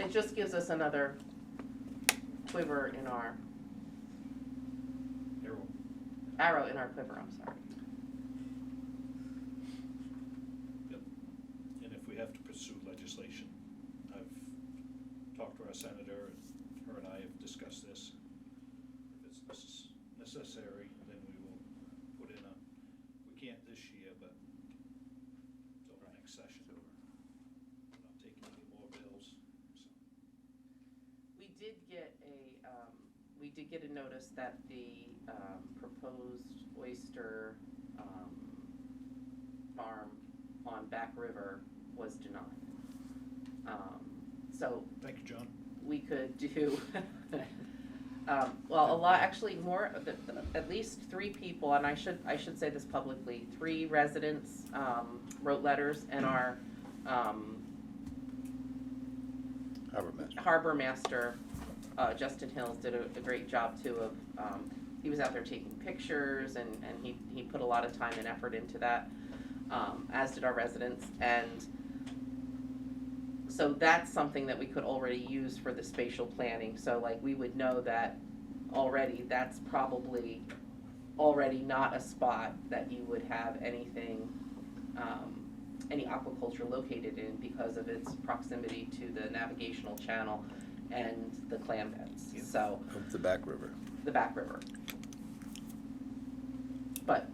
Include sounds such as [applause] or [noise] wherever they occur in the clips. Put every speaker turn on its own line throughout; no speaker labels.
It just gives us another quiver in our,
Errol.
arrow in our quiver, I'm sorry.
And if we have to pursue legislation, I've talked to our senator, and her and I have discussed this. If it's necess- necessary, then we will put in a, we can't this year, but till the next session. We're not taking any more bills, so.
We did get a, um, we did get a notice that the, um, proposed oyster, um, farm on Back River was denied. Um, so
Thank you, John.
we could do, um, well, a lot, actually more, of the- at least three people, and I should, I should say this publicly, three residents, um, wrote letters and our, um,
Harbor Master.
harbor master, uh, Justin Hills did a, a great job too of, um, he was out there taking pictures and, and he, he put a lot of time and effort into that, um, as did our residents, and so that's something that we could already use for the spatial planning, so like, we would know that already, that's probably already not a spot that you would have anything, um, any aquaculture located in because of its proximity to the navigational channel and the clam
Yeah.
beds, so,
Up the back river.
the back river. But,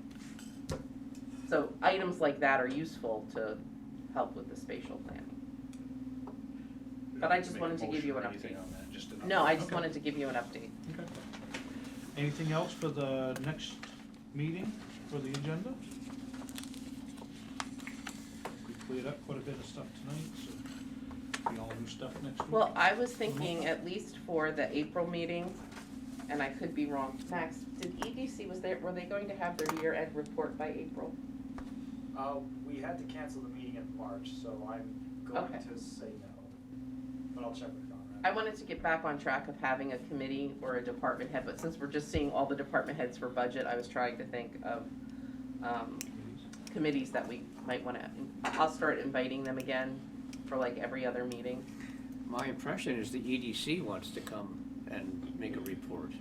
so items like that are useful to help with the spatial planning.
We
But
don't
I
have
just
make a
wanted to give
motion
you
or
an
anything
update.
on that, just an
No, I
update.
just
Okay.
wanted to give you an update.
Okay. Anything else for the next meeting, for the agenda? We cleared up quite a bit of stuff tonight, so we all new stuff next week.
Well, I was thinking at least for the April meeting, and I could be wrong. Max, did EDC, was there, were they going to have their year-end report by April?
Uh, we had to cancel the meeting in March, so I'm going
Okay.
to say no, but I'll check with Conrad.
I wanted to get back on track of having a committee or a department head, but since we're just seeing all the department heads for budget, I was trying to think of, um, committees that we might wanna, I'll start inviting them again for like every other meeting.
My impression is the EDC wants to come and make a report.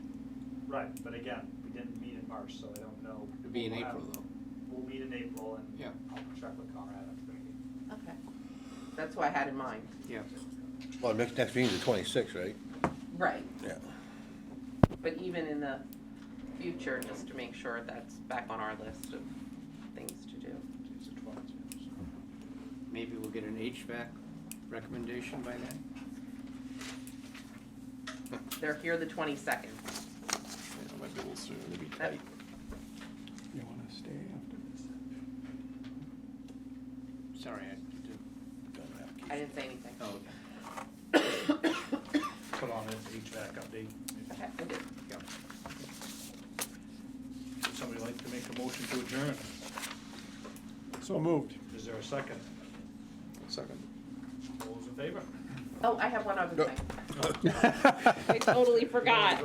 Right, but again, we didn't meet in March, so I don't know.
It'll be in
We'll
April
have-
though.
We'll meet in April and
Yeah.
I'll check with Conrad after the meeting.
Okay. That's what I had in mind.
Yeah.
Well, next, next meeting's the twenty-sixth, right?
Right.
Yeah.
But even in the future, just to make sure that's back on our list of things to do.
It's the 12th, yeah, so.
Maybe we'll get an HVAC recommendation by then.
They're here the twenty-second.
It might be a little soon, it'll be
That- tight.
You wanna stay after this?
Sorry, I did.
I didn't say anything.
Oh, okay.
Put on an HVAC update.
Okay, I did.
Would somebody like to make a motion to adjourn?
So moved.
Is there a second?
[laughs]
Second.
All those in favor?
Oh, I have one other
No.
thing. [laughs] I totally forgot.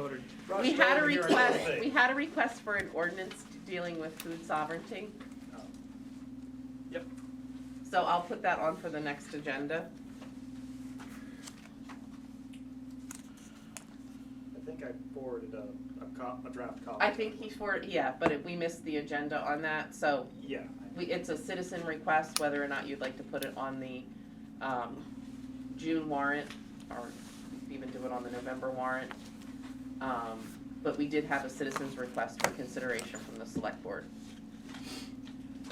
We had a request, we had a request for an ordinance dealing with food sovereignty.
Yep.
So I'll put that on for the next agenda.
I think I forwarded a, a cop, a draft copy.
I think he for, yeah, but it- we missed the agenda on that, so
Yeah,
we, it's a citizen request, whether or not you'd like to put it on the, um, June warrant, or even do it on the November warrant. Um, but we did have a citizen's request for consideration from the select board.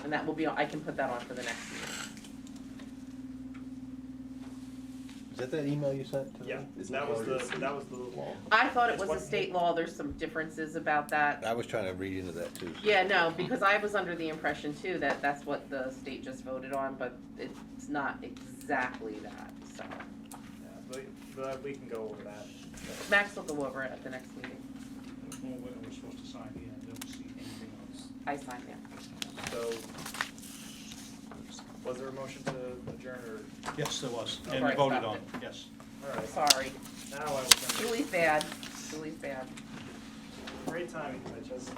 And that will be, I can put that on for the next meeting.
Is that that email you sent to me?
yeah, that was the, that was the law.
I thought it
It's
was
one-
a state law, there's some differences about that.
I was trying to read into that too.
Yeah, no, because I was under the impression too that that's what the state just voted on, but it's not exactly that, so.
Yeah, But, but we can go over that.
Max will go over it at the next meeting.
Well, what are we supposed to sign here? I don't see anything else.
I signed it.
So, was there a motion to adjourn or,
Yes, there was,
Oh,
and
right,
voted
stop
on,
it.
yes.
all right,
Sorry.
now I will send
Julie's bad. Julie's bad.
Great timing, I just.